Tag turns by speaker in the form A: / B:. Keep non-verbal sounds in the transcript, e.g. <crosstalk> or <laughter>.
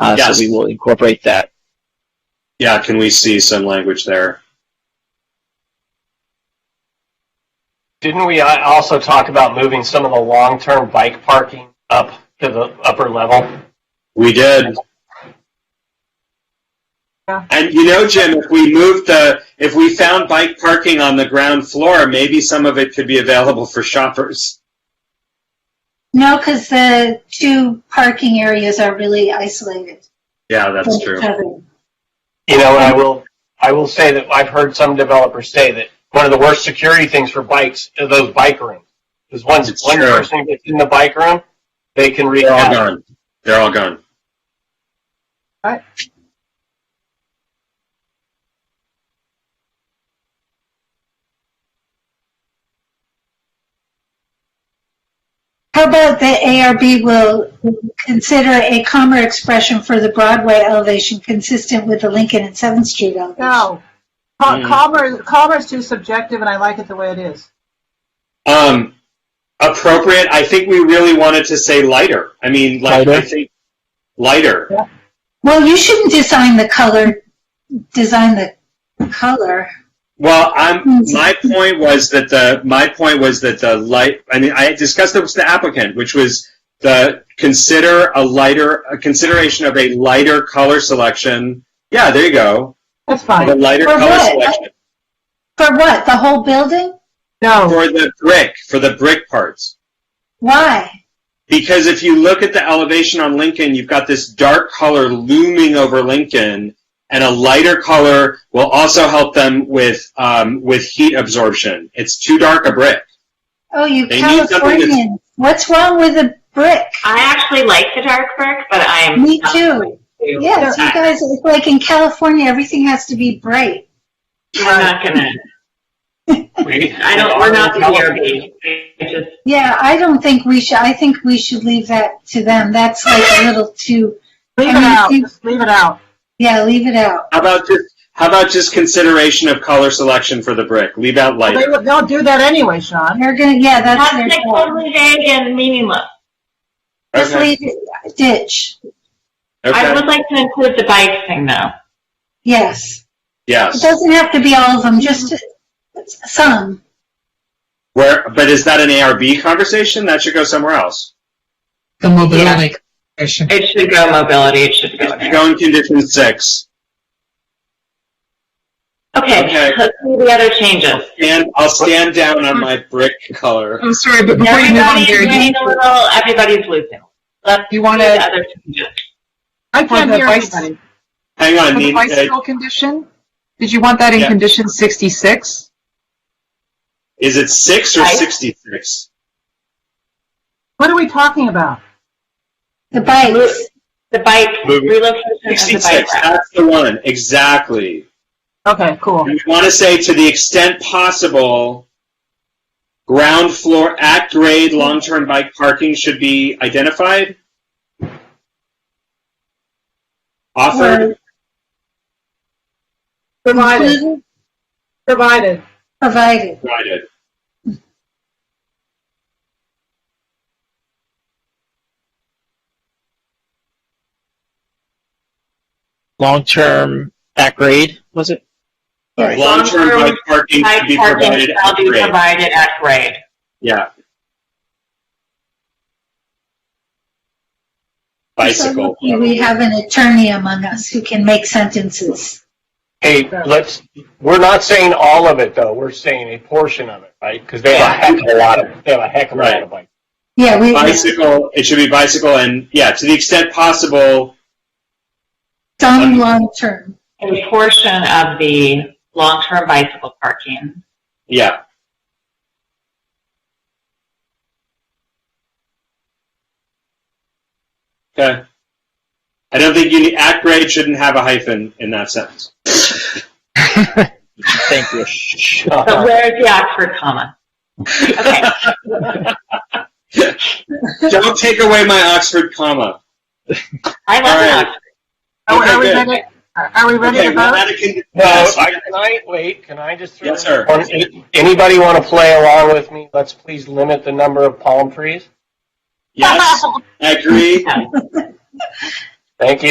A: Uh,
B: Yes.
A: So we will incorporate that.
B: Yeah, can we see some language there?
C: Didn't we uh, also talk about moving some of the long-term bike parking up to the upper level?
B: We did.
D: Yeah.
B: And you know, Jim, if we moved the, if we found bike parking on the ground floor, maybe some of it could be available for shoppers.
E: No, because the two parking areas are really isolated
B: Yeah, that's
E: from
B: true.
E: each other.
C: You know, and I will, I will say that I've heard some developers say that one of the worst security things for bikes are those bike rooms. Because once
B: It's
C: one
B: true.
C: person gets in the bike room, they can wreak
B: They're all
C: havoc.
B: gone. They're all gone.
E: How about the ARB will consider a calmer expression for the Broadway elevation consistent with the Lincoln and Seventh Street elevation?
D: No.
B: Hmm.
D: Cal- Calmer, calmer is too subjective, and I like it the way it is.
B: Um, appropriate. I think we really wanted to say lighter. I mean, like I
A: Lighter?
B: think lighter.
E: Well, you shouldn't design the color, design the color.
B: Well,
E: Hmm.
B: I'm, my point was that the my point was that the light. I mean, I discussed this with the applicant, which was the consider a lighter a consideration of a lighter color selection. Yeah, there you go.
D: That's
B: A
D: fine.
B: lighter
E: For
B: color
E: what?
B: selection
E: For what? The whole building?
D: No,
B: for the brick for the brick parts.
E: Why?
B: Because if you look at the elevation on Lincoln, you've got this dark color looming over Lincoln, and a lighter color will also help them with um, with heat absorption. It's too dark a brick.
E: Oh, you
B: They need something that's-
E: Californians. What's wrong with a brick?
F: I actually like the dark brick, but I'm
E: Me too. Yes, you guys, it's like in California, everything has to be bright.
F: I'm not gonna.
C: We-
F: <laughs> I don't. We're not the DRB. I just
E: Yeah, I don't think we should, I think we should leave that to them. That's like a little too,
D: leave it out. Just leave it out.
E: yeah, leave it out.
B: How about just how about just consideration of color selection for the brick? Leave out
D: Well,
B: lighter.
D: They, will- they'll do that anyway, Sean.
E: They're gonna, yeah, that's their
F: that's like
E: job.
F: totally vague and meaningless.
E: Just
B: Okay.
E: leave it, ditch.
F: I
B: okay.
F: would like to include the bike thing though.
E: Yes. It
B: Yes.
E: doesn't have to be all of them, just some.
B: Where? But is that an ARB conversation? That should go somewhere else.
G: The mobility question.
F: It should go mobility. It should go. there.
B: Go in condition six. Okay.
F: Okay. Let's see the other changes.
B: And I'll stand down on my brick color.
G: I'm sorry, but before you move on,
F: Everybody's
G: Gary,
F: getting
G: do
F: a little. Everybody's losing. Let's
G: you
F: see
G: want
F: the
G: to,
F: other changes.
D: I can't
G: the
D: hear
G: vice-
D: anybody.
B: Hang
G: for
B: on.
G: the
B: Need, uh,
G: bicycle condition, did you want that in
B: Yeah.
G: condition 66?
B: is it six or
F: Right.
B: sixty-six?
D: What are we talking about?
E: The bikes.
F: The bike
B: Move it.
F: relocation of the bike
B: 66,
F: rack.
B: that's the one, exactly.
D: Okay, cool.
B: And we want to say to the extent possible, ground floor, at grade, long-term bike parking should be identified? Offered?
D: Provided,
E: Included,
D: provided.
E: Provided.
B: Provided.
A: Long-term at grade, was it? Sorry.
B: Long-term
F: Long-term
B: bike parking should
F: Bike
B: be
F: parking
B: provided
F: shall
B: at
F: be
B: grade.
F: provided at grade.
B: Yeah.
E: So
B: Bicycle.
E: lucky We have an attorney among us who can make sentences.
C: Hey, let's, we're not saying all of it though. We're saying a portion of it, right? Because they have a heck of a lot of, they have a heck of a lot of bikes.
E: Yeah, we,
B: Bicycle, it should be bicycle and, yeah, to the extent possible,
E: some long-term.
F: A portion of the long-term bicycle parking.
B: yeah. Okay. I don't think you need, at grade shouldn't have a hyphen in that sentence.
A: Thank you.
C: Uh-huh.
F: So where's the Oxford comma? Okay,
B: <laughs> Don't take away my Oxford comma.
F: I love
B: All right.
F: an Oxford.
D: Are, we- Oh, are we
B: Okay,
D: ready? Are are we ready
B: Okay,
D: to
B: well,
D: vote?
B: that can-
C: No,
B: yes.
C: I, can I, wait, can I just? throw
B: Yes, sir.
C: one- Anybody want to play along with me? Let's please limit the number of palm trees.
D: <laughs>
F: <laughs>
B: Yes, <laughs> I agree.
C: Thank you.